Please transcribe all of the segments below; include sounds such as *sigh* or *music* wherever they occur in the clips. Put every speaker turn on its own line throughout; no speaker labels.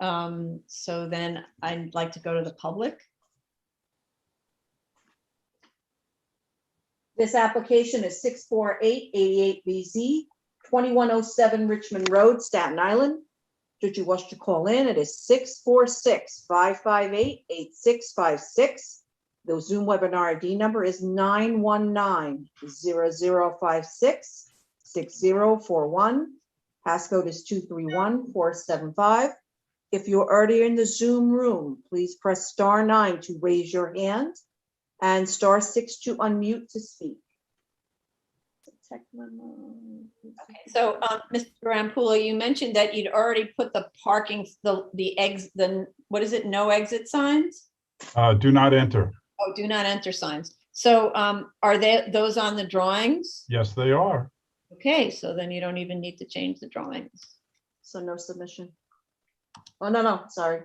Um, so then I'd like to go to the public.
This application is 64888BZ, 2107 Richmond Road, Staten Island. Should you wish to call in, it is 646-558-8656. The Zoom webinar ID number is 919-0056-6041. Passcode is 231475. If you're already in the Zoom room, please press star nine to raise your hand and star six to unmute to speak.
Okay, So, um, Mr. Rampulo, you mentioned that you'd already put the parking, the, the eggs, the, what is it? No exit signs?
Uh, do not enter.
Oh, do not enter signs. So, um, are they, those on the drawings?
Yes, they are.
Okay, so then you don't even need to change the drawings.
So no submission. Oh, no, no, sorry.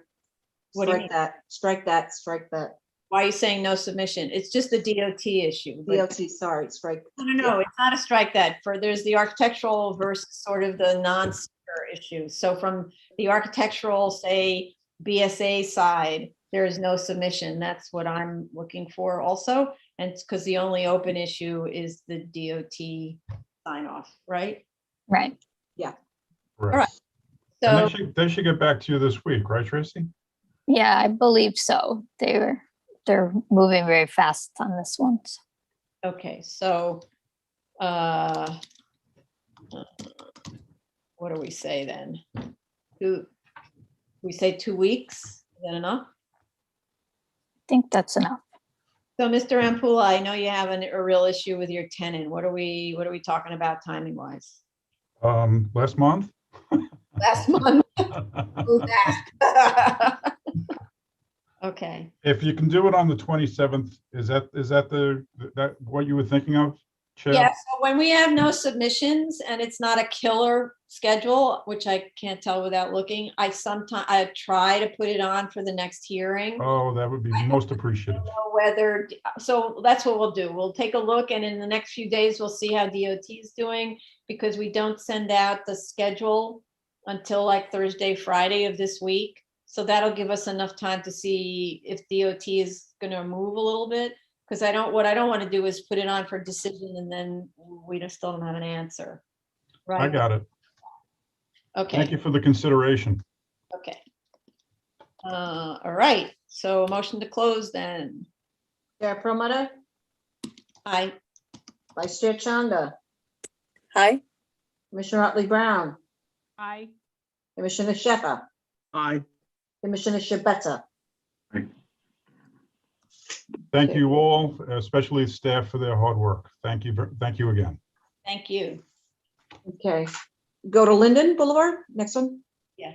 What do you mean?
Strike that, strike that, strike that.
Why are you saying no submission? It's just the DOT issue. but-
DOT, sorry, strike.
No, no, no, it's not a strike that, for there's the architectural versus sort of the non-seeker issue. So from the architectural, say, BSA side, there is no submission. That's what I'm looking for also. And it's because the only open issue is the DOT sign off, right?
Right.
right.
Correct. And
So,
they should, they should get back to you this week, right, Tracy?
Yeah, I believe so. They were, they're moving very fast on this one. so.
okay, so, uh, what do we say then? Two, we say two weeks, is that enough?
I think that's enough.
So Mr. Ampula, I know you have an- a real issue with your tenant. What are we, what are we talking about timing wise?
Um,
*laughs*
last month?
Last month. *laughs* move back. Okay,
If you can do it on the twenty-seventh, is that, is that the, that, what you were thinking of? Chair?
yeah, so when we have no submissions and it's not a killer schedule, which I can't tell without looking, I sometimes I try to put it on for the next hearing.
Oh, that would be most appreciated.
know whether, so that's what we'll do. We'll take a look and in the next few days, we'll see how DOT is doing because we don't send out the schedule until like Thursday, Friday of this week. So that'll give us enough time to see if DOT is gonna move a little bit. Because I don't, what I don't want to do is put it on for decision and then we just still don't have an answer.
I
Right?
got it. Thank
Okay,
you for the consideration.
okay. Uh, all right, so motion to close then.
Chair Promoter,
Aye.
Vice Chair Chanda,
Hi.
Commissioner Otley Brown,
Hi.
Commissioner Shepherd,
Aye.
Commissioner Shabeta.
Thank you all, especially staff for their hard work. Thank you, ver- thank you again.
Thank you.
Okay, go to Linden Boulevard, next one?
Yeah.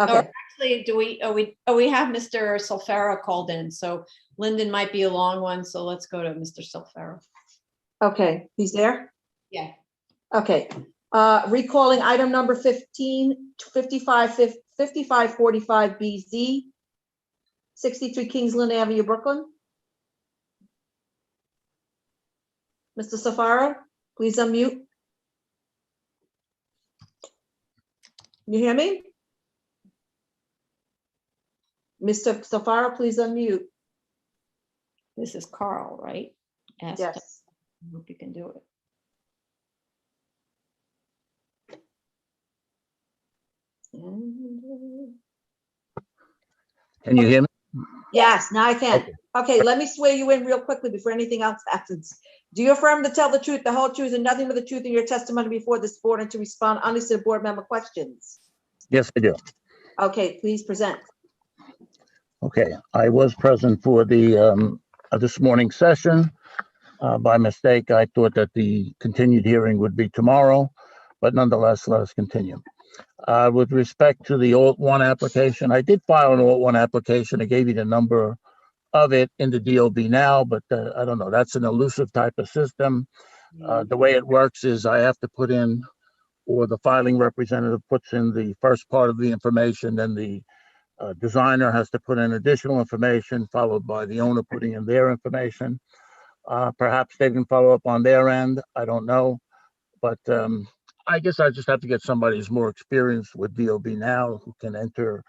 Okay,
Actually, do we, oh, we, oh, we have Mr. Solfera called in, so Lyndon might be a long one, so let's go to Mr. Solfera.
okay, he's there?
Yeah.
Okay, uh, recalling item number 15, 55 5545 BZ, 63 Kingsland Avenue, Brooklyn. Mr. Safaro, please unmute. You hear me? Mr. Safaro, please unmute.
This is Carl, right? Ask him,
Yes.
Hope you can do it.
Can you hear me?
Yes, now I can.
Okay.
Okay, let me swear you in real quickly before anything else happens. Do you affirm to tell the truth, the whole truth, and nothing but the truth in your testimony before this board and to respond honestly to board member questions?
Yes, I do.
Okay, please present.
Okay, I was present for the, um, uh, this morning's session. Uh, by mistake, I thought that the continued hearing would be tomorrow, but nonetheless, let us continue. Uh, with respect to the alt one application, I did file an alt one application. I gave you the number of it in the DOB now, but, uh, I don't know, that's an elusive type of system. Uh, the way it works is I have to put in, or the filing representative puts in the first part of the information, then the uh, designer has to put in additional information, followed by the owner putting in their information. Uh, Perhaps they can follow up on their end, I don't know. But um, I guess I just have to get somebody who's more experienced with DOB now, who can enter